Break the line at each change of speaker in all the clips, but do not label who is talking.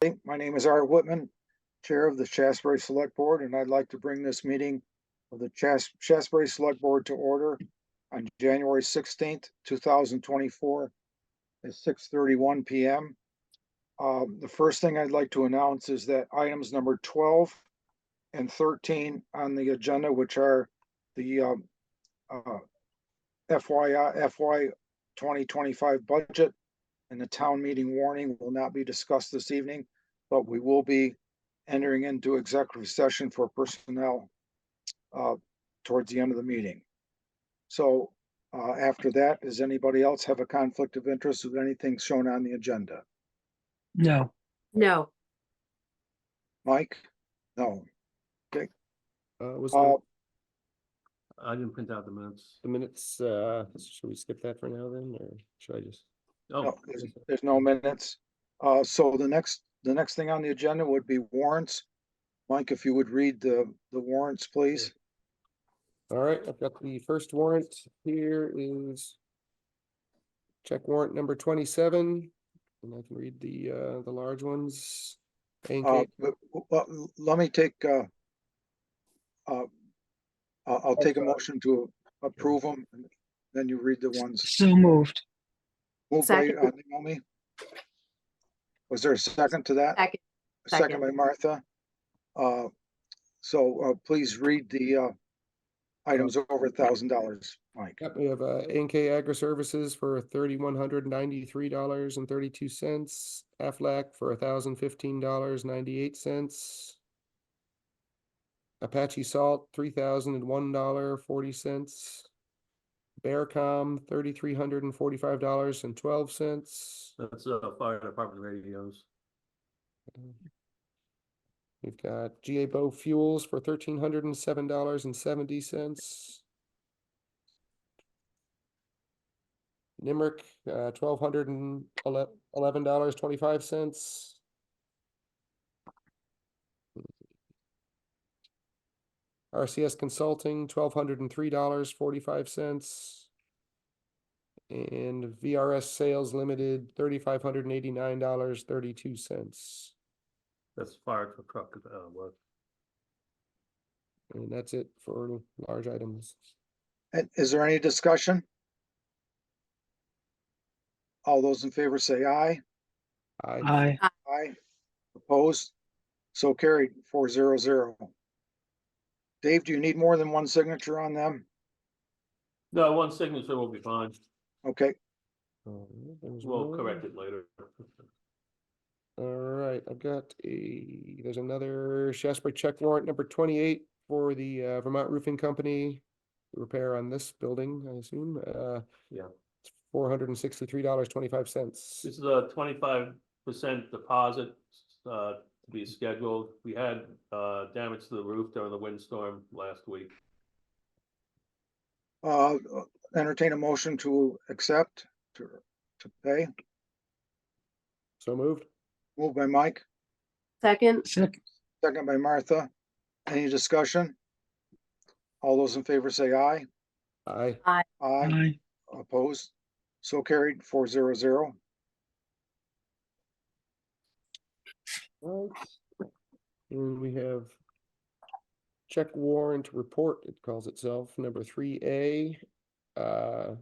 Hey, My name is Art Whitman, Chair of the Shasberry Select Board, and I'd like to bring this meeting of the Chas- Shasberry Select Board to order on January sixteenth, two thousand twenty-four at six thirty-one PM. Um, the first thing I'd like to announce is that items number twelve and thirteen on the agenda, which are the um, uh, FYI, FY twenty twenty-five budget and the town meeting warning will not be discussed this evening, but we will be entering into executive session for personnel uh, towards the end of the meeting. So uh, after that, does anybody else have a conflict of interest with anything shown on the agenda?
No,
No,
Mike? No.
Uh, was
Uh,
the,
I didn't print out the minutes.
the minutes, uh, should we skip that for now then, or should I just?
Oh,
No, there's, there's no minutes. Uh, so the next, the next thing on the agenda would be warrants. Mike, if you would read the, the warrants, please.
All right, I've got the first warrant here is check warrant number twenty-seven, and I can read the, uh, the large ones. A and
Uh,
K.
but, but let me take, uh, uh, I'll, I'll take a motion to approve them, then you read the ones.
so moved.
Moved by
Second.
uh, Naomi. Was there a second to that?
second,
Second by
Second.
Martha. Uh, so, uh, please read the, uh, items over a thousand dollars, Mike.
Yep, we have, uh, A and K Agri Services for thirty-one hundred ninety-three dollars and thirty-two cents. Aflac for thousand fifteen dollars ninety-eight cents. Apache Salt, three thousand and one dollar forty cents. Bearcom, thirty-three hundred and forty-five dollars and twelve cents.
that's uh fire department radios.
We've got GA Bow Fuels for thirteen hundred and seven dollars and seventy cents. Nimerick, uh, twelve hundred and eleven dollars, twenty-five cents. RCS Consulting, twelve hundred and three dollars, forty-five cents. And VRS Sales Limited, thirty-five hundred and eighty-nine dollars, thirty-two cents.
That's fire truck, uh, work.
And that's it for large items.
And is there any discussion? All those in favor say aye.
I,
Aye,
Aye. Opposed? So carried, four zero zero. Dave, do you need more than one signature on them?
No, one signature will be fine.
Okay,
We'll correct it later.
Alright, I've got a, there's another Shasbury check warrant number twenty-eight for the uh, Vermont Roofing Company. Repair on this building, I assume, uh.
Yeah.
Four hundred and sixty-three dollars, twenty-five cents.
This is a twenty-five percent deposit, uh, to be scheduled. We had, uh, damage to the roof during the windstorm last week.
uh, entertain a motion to accept, to, to pay.
So moved.
Moved by Mike,
second,
second,
second by Martha. Any discussion? All those in favor say aye.
I,
Aye.
aye,
Opposed? So carried, four zero zero.
Right. And we have check warrant report, it calls itself, number three A. Uh,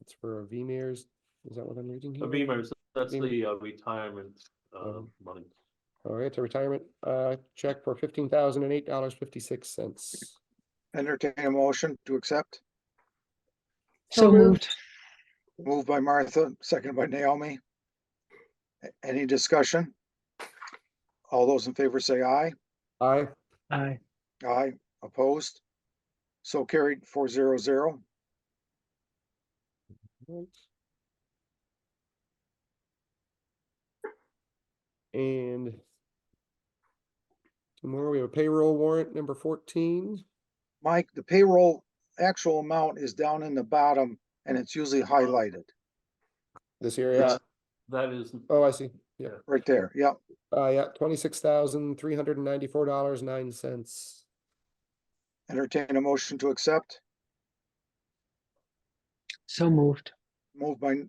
it's for VMears, is that what I'm reading
The
here?
Beamers, that's
Beamer.
the uh, retirement, uh,
Um,
money.
All right, a retirement, uh, check for fifteen thousand and eight dollars fifty-six cents.
Entertain a motion to accept.
so
So moved.
moved.
Moved by Martha, second by Naomi. A- Any discussion? All those in favor say aye.
I,
Aye,
Aye, opposed? So carried four zero zero.
and tomorrow we have a payroll warrant number fourteen.
Mike, the payroll actual amount is down in the bottom and it's usually highlighted
This area,
That is,
oh, I see, yeah,
right there. Yep.
uh, yeah, twenty-six thousand, three hundred and ninety-four dollars, nine cents.
Entertain a motion to accept.
so moved.
Moved by